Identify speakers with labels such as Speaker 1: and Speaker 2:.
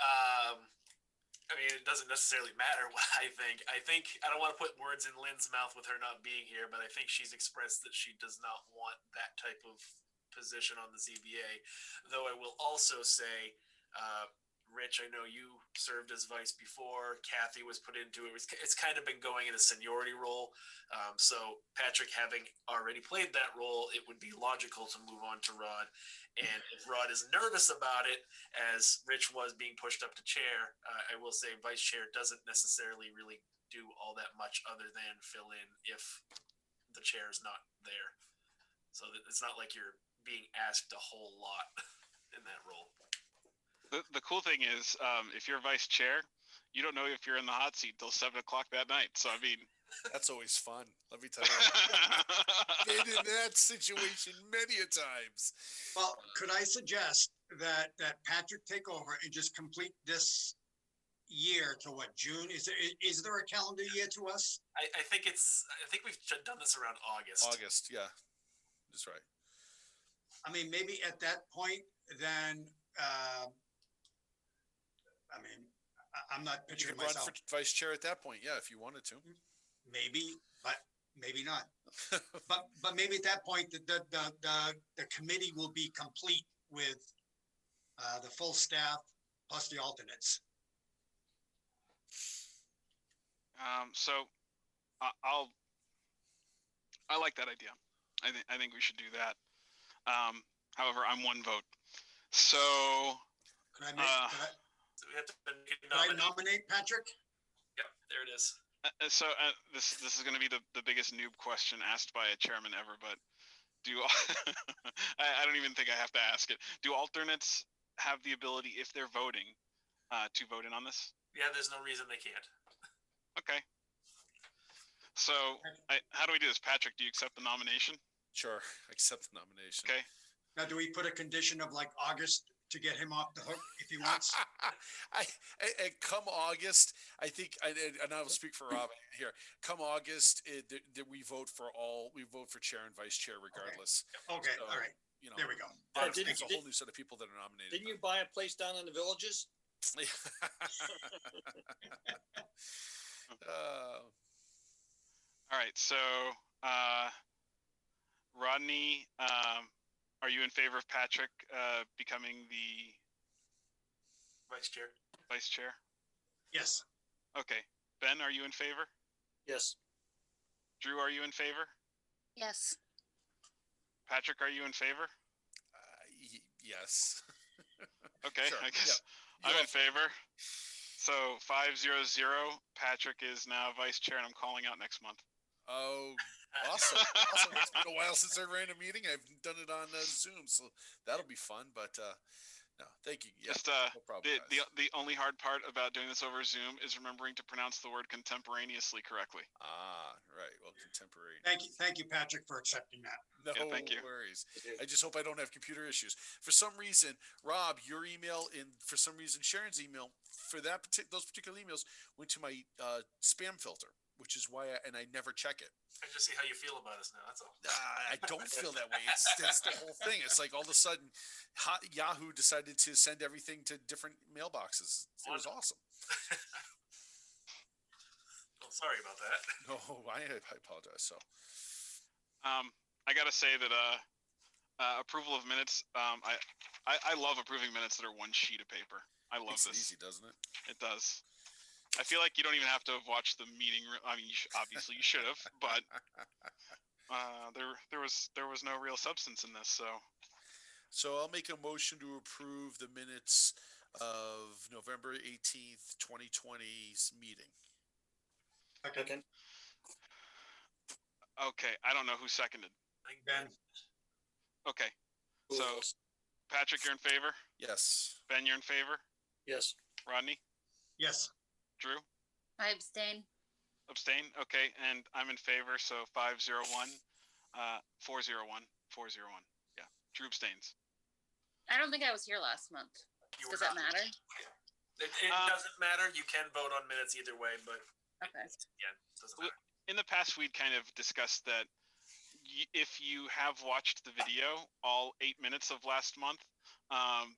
Speaker 1: Um, doesn't necessarily matter what I think. I think I don't want to put words in Lynn's mouth with her not being here, but I think she's expressed that she does not want that type of position on the ZBA. Though I will also say, uh, Rich, I know you served as vice before. Kathy was put into it. It's, it's kind of been going in a seniority role. Um, so Patrick, having already played that role, it would be logical to move on to Rod. And if Rod is nervous about it, as Rich was being pushed up to chair, uh, I will say vice chair doesn't necessarily really do all that much other than fill in if the chair is not there. So that- it's not like you're being asked a whole lot in that role.
Speaker 2: The, the cool thing is, um, if you're vice chair, you don't know if you're in the hot seat till seven o'clock that night. So I mean,
Speaker 3: That's always fun. Let me tell you. Been in that situation many a times.
Speaker 4: Well, could I suggest that, that Patrick take over and just complete this year to what, June? Is there, is there a calendar year to us?
Speaker 1: I, I think it's, I think we've done this around August.
Speaker 3: August, yeah. That's right.
Speaker 4: I mean, maybe at that point, then, uh, I mean, I, I'm not
Speaker 3: You
Speaker 4: picturing
Speaker 3: could run
Speaker 4: myself,
Speaker 3: for vice chair at that point, yeah, if you wanted to.
Speaker 4: maybe, but maybe not. But, but maybe at that point, the, the, the, the, the committee will be complete with, uh, the full staff plus the alternates.
Speaker 2: um, so I, I'll. I like that idea. I think I think we should do that. Um, however, I'm one vote. So
Speaker 4: Could I make,
Speaker 2: Uh,
Speaker 4: could I-
Speaker 1: So we have to
Speaker 4: could I nominate Patrick?
Speaker 1: Yep, there it is.
Speaker 2: Uh, uh, so uh, this this is going to be the, the biggest noob question asked by a chairman ever, but do I, I don't even think I have to ask it. Do alternates have the ability, if they're voting, uh, to vote in on this?
Speaker 1: Yeah, there's no reason they can't.
Speaker 2: Okay. So I, how do we do this, Patrick? Do you accept the nomination?
Speaker 3: Sure, accept the nomination.
Speaker 2: Okay.
Speaker 4: Now, do we put a condition of like August to get him off the hook if he wants?
Speaker 3: I, I, I- come August, I think, and, and- and I'll speak for Rob here. Come August, it, th- th- we vote for all, we vote for chair and vice chair regardless.
Speaker 4: Okay, all right,
Speaker 3: You know,
Speaker 4: there we go.
Speaker 5: Uh,
Speaker 3: there's
Speaker 5: didn't-
Speaker 3: there's a whole new set of people that are nominated.
Speaker 5: Didn't
Speaker 3: now.
Speaker 5: you buy a place down in the villages?
Speaker 3: Uh,
Speaker 2: All right. So uh, Rodney, um, are you in favor of Patrick uh, becoming the
Speaker 1: Vice Chair.
Speaker 2: vice chair?
Speaker 4: Yes,
Speaker 2: Okay. Ben, are you in favor?
Speaker 5: Yes.
Speaker 2: Drew, are you in favor?
Speaker 6: Yes,
Speaker 2: Patrick, are you in favor?
Speaker 3: uh, y- yes.
Speaker 2: Okay,
Speaker 3: Sure,
Speaker 2: I
Speaker 3: yeah.
Speaker 2: guess I'm in favor. So five zero zero. Patrick is now vice chair, and I'm calling out next month.
Speaker 3: Oh,
Speaker 1: Uh,
Speaker 3: awesome. awesome. It's been a while since I ran a meeting. I've done it on uh, Zoom, so that'll be fun. But uh, no, thank you. Yeah,
Speaker 2: Just uh,
Speaker 3: no problem.
Speaker 2: the, the
Speaker 3: guys.
Speaker 2: the only hard part about doing this over Zoom is remembering to pronounce the word contemporaneously correctly.
Speaker 3: ah, right. Well, contemporary.
Speaker 4: thank you, thank you, Patrick, for accepting that.
Speaker 3: No
Speaker 2: Yeah, thank you.
Speaker 3: worries. I just hope I don't have computer issues. For some reason, Rob, your email and for some reason Sharon's email for that partic- those particular emails went to my uh, spam filter, which is why I, and I never check it.
Speaker 1: I just see how you feel about us now. That's all.
Speaker 3: Uh, I don't feel that way. It's that's the whole thing. It's like all of a sudden, hot, Yahoo decided to send everything to different mailboxes. It was awesome.
Speaker 1: Well, sorry about that.
Speaker 3: No, Oh, I, I apologize. So
Speaker 2: Um, I gotta say that uh, uh approval of minutes. Um, I, I I love approving minutes that are one sheet of paper. I love
Speaker 3: makes it
Speaker 2: this.
Speaker 3: easy, doesn't it?
Speaker 2: It does. I feel like you don't even have to have watched the meeting. re- I mean, you sh- obviously you should have, but uh, there there was there was no real substance in this. So
Speaker 3: So I'll make a motion to approve the minutes of November 18th, 2020's meeting.
Speaker 4: Okay,
Speaker 2: okay, I don't know who seconded.
Speaker 1: I think
Speaker 4: Ben,
Speaker 2: Okay,
Speaker 5: Who
Speaker 2: So-
Speaker 5: else?
Speaker 2: Patrick, you're in favor.
Speaker 3: Yes.
Speaker 2: Ben, you're in favor.
Speaker 5: Yes.
Speaker 2: Rodney,
Speaker 4: yes,
Speaker 2: Drew,
Speaker 6: I abstain.
Speaker 2: abstain. Okay, and I'm in favor. So five zero one, uh, four zero one, four zero one. Yeah, Drew abstains.
Speaker 6: I don't think I was here last month.
Speaker 1: you were
Speaker 6: Does that
Speaker 1: not.
Speaker 6: matter?
Speaker 1: It, it
Speaker 2: Um,
Speaker 1: doesn't matter. You can vote on minutes either way, but
Speaker 6: Okay.
Speaker 1: yeah, it doesn't matter.
Speaker 2: in the past we'd kind of discussed that y- if you have watched the video all eight minutes of last month um,